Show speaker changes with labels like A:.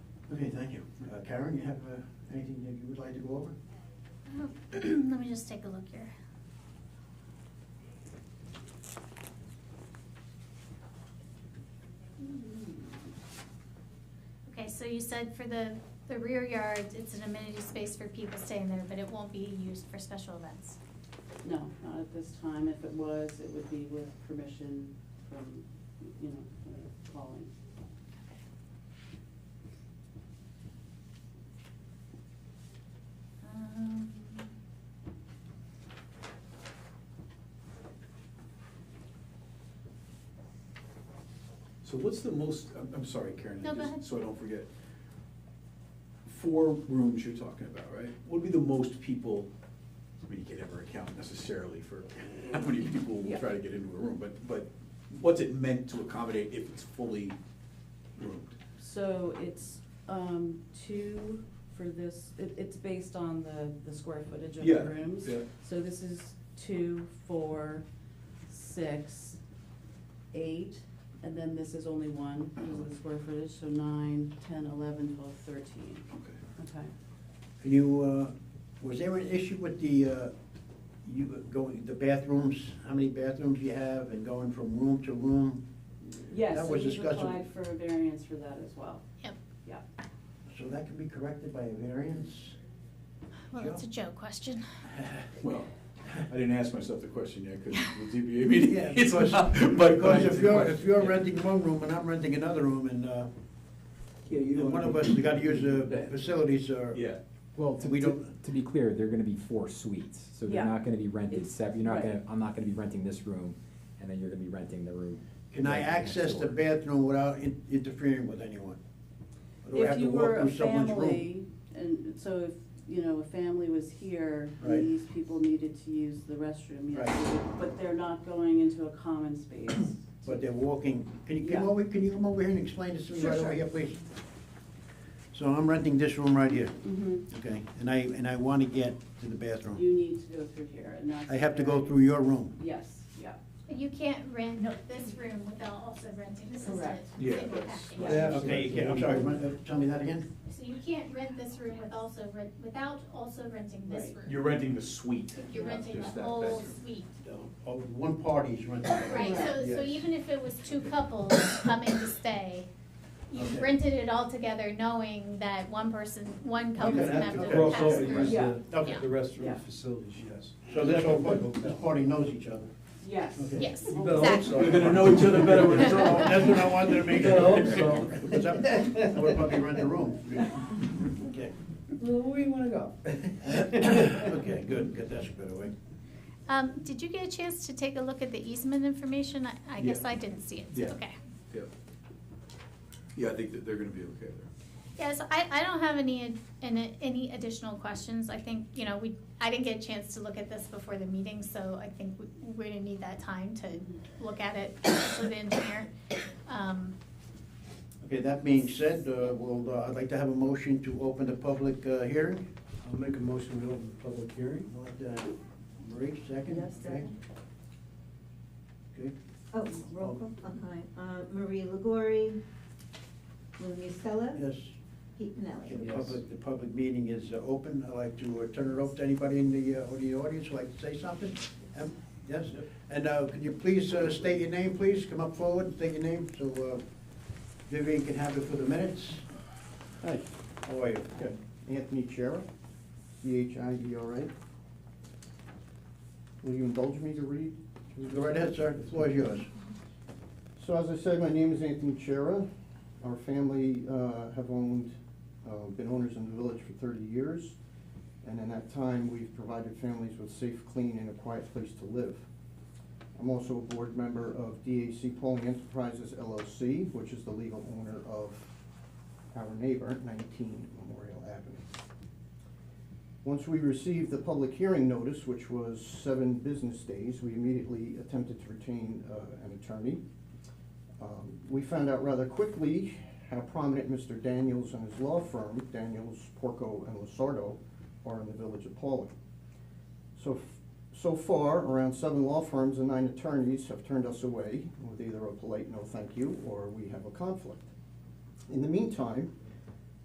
A: Okay, thank you. Uh, Karen, you have uh, anything that you would like to go over?
B: Uh, Let me just take a look here. Okay, so you said for the, the rear yard, it's an amenity space for people staying there, but it won't be used for special events.
C: No, not at this time. If it was, it would be with permission from, you know, uh, calling.
B: Um,
D: So what's the most, I'm, I'm sorry, Karen,
B: No, go
D: just
B: ahead.
D: so I don't forget. Four rooms you're talking about, right? What would be the most people, I mean, you can never account necessarily for how many people will
C: Yeah.
D: try to get into a room, but, but what's it meant to accommodate if it's fully roomed?
C: So it's, um, two for this, it, it's based on the, the square footage of the
D: Yeah,
C: rooms.
D: yeah.
C: So this is two, four, six, eight, and then this is only one, because of the square footage, so nine, ten, eleven, twelve, thirteen.
D: Okay.
C: Okay.
A: You, uh, was there an issue with the, uh, you going, the bathrooms, how many bathrooms you have and going from room to room?
C: Yes,
A: That
C: so
A: was
C: we've
A: discussed.
C: applied for a variance for that as well,
B: Yep,
C: yeah.
A: So that can be corrected by a variance?
B: well, it's a Joe question.
D: Well, I didn't ask myself the question yet, because the ZBA meeting.
A: Yeah,
D: is
A: because,
D: not- but-
A: because if you're, if you're renting one room and I'm renting another room and, uh,
D: Yeah, you
A: and
D: don't-
A: one of us gotta use the
D: Yeah.
A: facilities or.
D: Yeah.
E: Well, to,
A: We
E: to,
A: don't-
E: to be clear, they're gonna be four suites, so
C: Yeah.
E: they're not gonna be rented
C: It's-
E: sep, you're not
C: right.
E: gonna, I'm not gonna be renting this room, and then you're gonna be renting the room.
A: Can I
E: right next
A: access the
E: door.
A: bathroom without in- interfering with anyone? Or do I
C: If
A: have to
C: you
A: walk
C: were a
A: through someone's room?
C: family, and so if, you know, a family was here,
A: Right.
C: and these people needed to use the restroom, yes,
A: Right.
C: they would, but they're not going into a common space.
A: But they're walking, can you come
C: Yeah.
A: over, can you come over here and explain this to me
C: Sure,
A: right over
C: sure.
A: here, please? So I'm renting this room right here,
C: Mhm.
A: okay, and I, and I wanna get to the bathroom.
C: You need to go through here, and that's.
A: I have to go through your room.
C: Yes, yeah,
B: You can't rent this room without also renting, this is a
C: Correct.
D: Yeah,
B: single
D: that's-
B: package.
C: Yeah.
A: Okay, you can, I'm sorry, run- uh, tell me that again?
B: So you can't rent this room with also, rent without also renting this
C: Right.
B: room.
D: You're renting the suite.
B: You're
C: Yeah,
B: renting the
D: just that
B: whole
D: bedroom.
B: suite.
A: Oh, one party's renting. it.
B: Right, so, so
A: Yes.
B: even if it was two couples coming to stay, you
A: Okay.
B: rented it all together knowing that one person, one couple's
A: Okay,
B: gonna have to
A: okay.
F: Cross
B: pass
F: over,
B: through.
F: use
C: Yeah.
F: the,
A: Okay,
F: the
C: Yeah.
F: restroom facilities, yes.
A: so this whole, bu- this party knows each other.
C: yes.
A: Okay.
B: Yes,
F: You better hope so.
B: exactly.
F: We're gonna know each other better when it's
A: So
F: over.
A: That's what I wanted to make sure.
F: I hope so.
A: Because I'm- I would probably rent the room. Okay.
F: Where do you wanna go?
A: Okay, good, good, that's a better way.
B: Um, did you get a chance to take a look at the easement information? I, I guess
D: Yeah.
B: I didn't see it,
D: Yeah.
B: okay.
D: Yep. Yeah, I think that they're gonna be okay there.
B: Yes, I, I don't have any, ad- an- any additional questions. I think, you know, we, I didn't get a chance to look at this before the meeting, so I think we- we're gonna need that time to look at it with the engineer. Um,
A: Okay, that being said, uh, we'll, uh, I'd like to have a motion to open the public uh, hearing.
F: I'll make a motion to open the public hearing.
A: I'll let, uh, Marie, second?
G: Yes,
A: okay?
G: second.
A: Okay,
G: Oh, roll call, okay. Uh, Marie Legory, Lou Musella,
A: yes,
G: Pete
A: okay,
G: Pinelli.
A: the
F: Yes.
A: public, the public meeting is uh, open. I'd like to uh, turn it over to anybody in the, uh, or the audience who'd like to say something. Um, Yes, and uh, could you please uh, state your name, please? Come up forward, and state your name, so uh, Vivian can have it for the minutes.
H: Hi,
A: How are you?
H: Good. Anthony Chera, C-H-I-E-R-A. Will you indulge me to read?
A: Go right ahead, sir, the floor is yours.
H: So as I said, my name is Anthony Chera. Our family uh, have owned, uh, been owners in the village for 30 years. And in that time, we've provided families with safe, clean, and a quiet place to live. I'm also a board member of DAC Polling Enterprises LLC, which is the legal owner of our neighbor, 19 Memorial Avenue. Once we received the public hearing notice, which was seven business days, we immediately attempted to retain uh, an attorney. Um, We found out rather quickly how prominent Mr. Daniels and his law firm, Daniels, Porco, and Losardo, are in the village of Pauling. So, f- so far, around seven law firms and nine attorneys have turned us away with either a polite no thank you or we have a conflict. In the meantime,